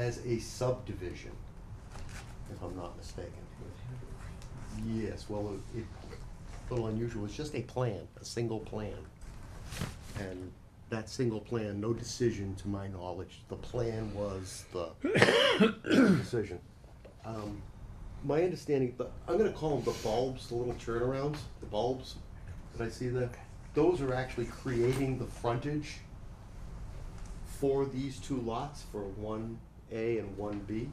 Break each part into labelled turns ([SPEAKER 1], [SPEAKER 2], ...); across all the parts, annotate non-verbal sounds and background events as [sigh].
[SPEAKER 1] as a subdivision, if I'm not mistaken. Yes, well, it- it, a little unusual, it's just a plan, a single plan. And that single plan, no decision to my knowledge, the plan was the decision. Um, My understanding, the- I'm gonna call them the bulbs, the little turnarounds, the bulbs that I see there. Those are actually creating the frontage for these two lots, for one A and one B.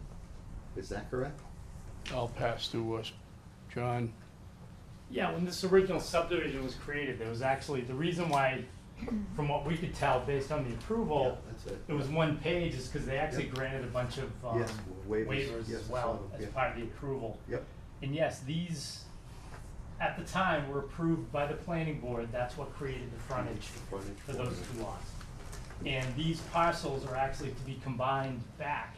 [SPEAKER 1] Is that correct?
[SPEAKER 2] I'll pass to us, John.
[SPEAKER 3] Yeah, when this original subdivision was created, there was actually, the reason why, from what we could tell based on the approval,
[SPEAKER 1] Yeah, that's it.
[SPEAKER 3] it was one page is because they actually
[SPEAKER 1] Yep.
[SPEAKER 3] granted a bunch of um,
[SPEAKER 1] Yes, waivers.
[SPEAKER 3] waivers
[SPEAKER 1] Yes, I
[SPEAKER 3] as
[SPEAKER 1] saw
[SPEAKER 3] well
[SPEAKER 1] them,
[SPEAKER 3] as
[SPEAKER 1] yeah.
[SPEAKER 3] part of the approval.
[SPEAKER 1] Yep,
[SPEAKER 3] And yes, these, at the time, were approved by the planning board. That's what created the frontage
[SPEAKER 1] frontage
[SPEAKER 3] for
[SPEAKER 1] for
[SPEAKER 3] those
[SPEAKER 1] it.
[SPEAKER 3] two lots. And these parcels are actually to be combined back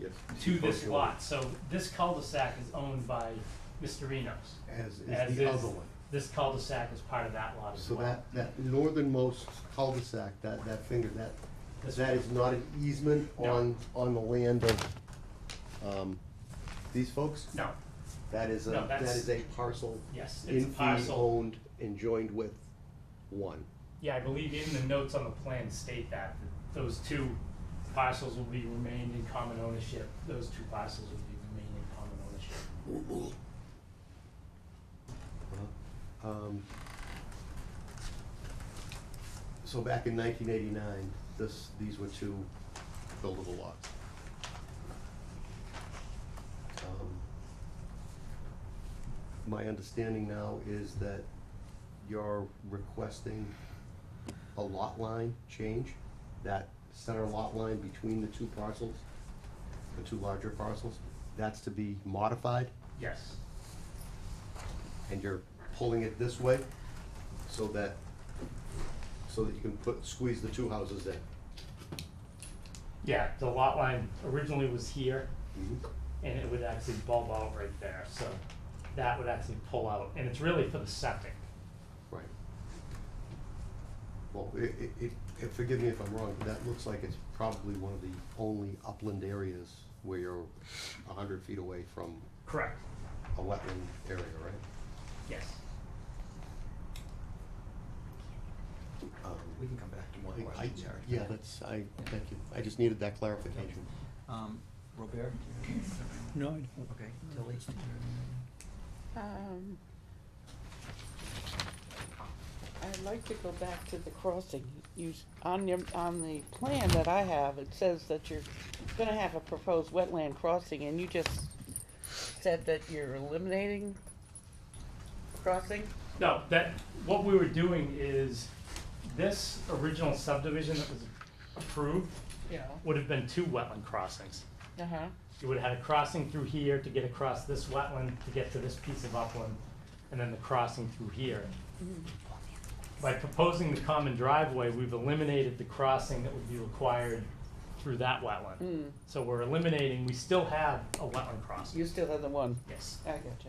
[SPEAKER 1] yes.
[SPEAKER 3] to this
[SPEAKER 1] Functional.
[SPEAKER 3] lot. So this cul-de-sac is owned by Mr. Enos.
[SPEAKER 1] As
[SPEAKER 3] As
[SPEAKER 1] is the
[SPEAKER 3] is-
[SPEAKER 1] other one.
[SPEAKER 3] This cul-de-sac is part of that lot as
[SPEAKER 1] So
[SPEAKER 3] well.
[SPEAKER 1] that, that northernmost cul-de-sac, that, that finger, that,
[SPEAKER 3] This
[SPEAKER 1] that
[SPEAKER 3] one.
[SPEAKER 1] is not an easement
[SPEAKER 3] No.
[SPEAKER 1] on, on the land of, um, these folks?
[SPEAKER 3] No,
[SPEAKER 1] That is a,
[SPEAKER 3] No,
[SPEAKER 1] that
[SPEAKER 3] that's-
[SPEAKER 1] is a parcel.
[SPEAKER 3] yes,
[SPEAKER 1] in
[SPEAKER 3] it's a
[SPEAKER 1] fee
[SPEAKER 3] parcel.
[SPEAKER 1] Owned and joined with one.
[SPEAKER 3] Yeah, I believe in the notes on the plan state that, that those two parcels will be remained in common ownership. Those two parcels will be remained in common ownership.
[SPEAKER 1] Um, So back in nineteen eighty-nine, this, these were two buildable lots. Um, My understanding now is that you're requesting a lot line change, that center lot line between the two parcels, the two larger parcels, that's to be modified?
[SPEAKER 3] Yes,
[SPEAKER 1] and you're pulling it this way so that, so that you can put, squeeze the two houses in.
[SPEAKER 3] yeah, the lot line originally was here and it would actually bulb out right there, so that would actually pull out. And it's really for the septic.
[SPEAKER 1] Right. Well, it, it- it, it, forgive me if I'm wrong, but that looks like it's probably one of the only upland areas where you're a hundred feet away from
[SPEAKER 3] Correct.
[SPEAKER 1] a wetland area, right?
[SPEAKER 3] Yes.
[SPEAKER 1] Um,
[SPEAKER 4] We can come back to more
[SPEAKER 1] I- I-
[SPEAKER 4] questions, Eric.
[SPEAKER 1] Yeah, that's, I, thank you, I just needed that clarification.
[SPEAKER 4] Um, Robert?
[SPEAKER 2] No, I
[SPEAKER 4] Okay, Tilly?
[SPEAKER 5] Um, I'd like to go back to the crossing. You, s- on your, on the plan that I have, it says that you're gonna have a proposed wetland crossing, and you just said that you're eliminating crossing?
[SPEAKER 3] No, that, what we were doing is this original subdivision that was approved
[SPEAKER 5] Yeah.
[SPEAKER 3] would have been two wetland crossings.
[SPEAKER 5] Uh-huh,
[SPEAKER 3] You would have had a crossing through here to get across this wetland to get to this piece of upland, and then the crossing through here. By proposing the common driveway, we've eliminated the crossing that would be required through that wetland.
[SPEAKER 5] mm,
[SPEAKER 3] So we're eliminating, we still have a wetland crossing.
[SPEAKER 5] you still have the one,
[SPEAKER 3] Yes.
[SPEAKER 5] I gotcha.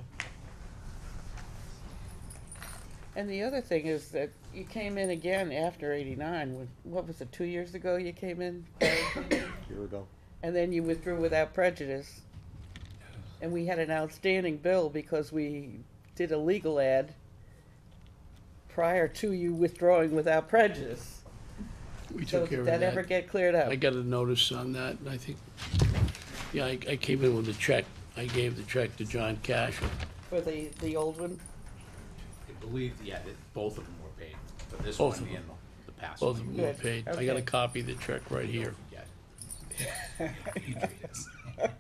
[SPEAKER 5] And the other thing is that you came in again after eighty-nine, when- what was it, two years ago you came in?
[SPEAKER 1] Here we go.
[SPEAKER 5] And then you withdrew without prejudice. And we had an outstanding bill because we did a legal ad prior to you withdrawing without prejudice.
[SPEAKER 2] We
[SPEAKER 5] So
[SPEAKER 2] took care
[SPEAKER 5] did
[SPEAKER 2] of
[SPEAKER 5] that ever
[SPEAKER 2] that.
[SPEAKER 5] get cleared up?
[SPEAKER 2] I got a notice on that, and I think, yeah, I, I came in with a check. I gave the check to John Cash.
[SPEAKER 5] For the, the old one?
[SPEAKER 6] I believe, yeah, that both of them were paid, but this
[SPEAKER 2] Both
[SPEAKER 6] one
[SPEAKER 2] of
[SPEAKER 6] and
[SPEAKER 2] them.
[SPEAKER 6] the past one.
[SPEAKER 2] Both of them were
[SPEAKER 5] Good,
[SPEAKER 2] paid. I got a
[SPEAKER 5] okay.
[SPEAKER 2] copy of the check right here.
[SPEAKER 6] Yeah. [laughs]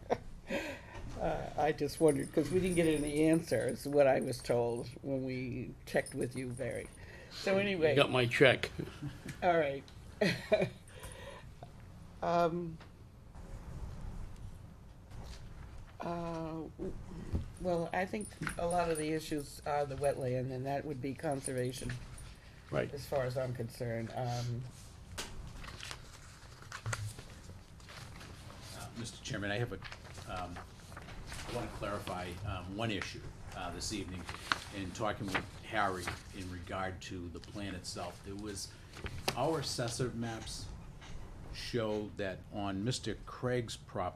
[SPEAKER 5] Uh, I just wondered, because we didn't get any answers, what I was told when we checked with you, Barry. So
[SPEAKER 2] I
[SPEAKER 5] anyway.
[SPEAKER 2] got my check.
[SPEAKER 5] All right. [laughs] Um, uh, w- Well, I think a lot of the issues are the wetland, and that would be conservation,
[SPEAKER 2] Right.
[SPEAKER 5] as far as I'm concerned. Um,
[SPEAKER 6] Uh, Mr. Chairman, I have a, um, I want to clarify um, one issue uh, this evening. In talking with Harry in regard to the plan itself, there was, our assessor maps show that on Mr. Craig's property.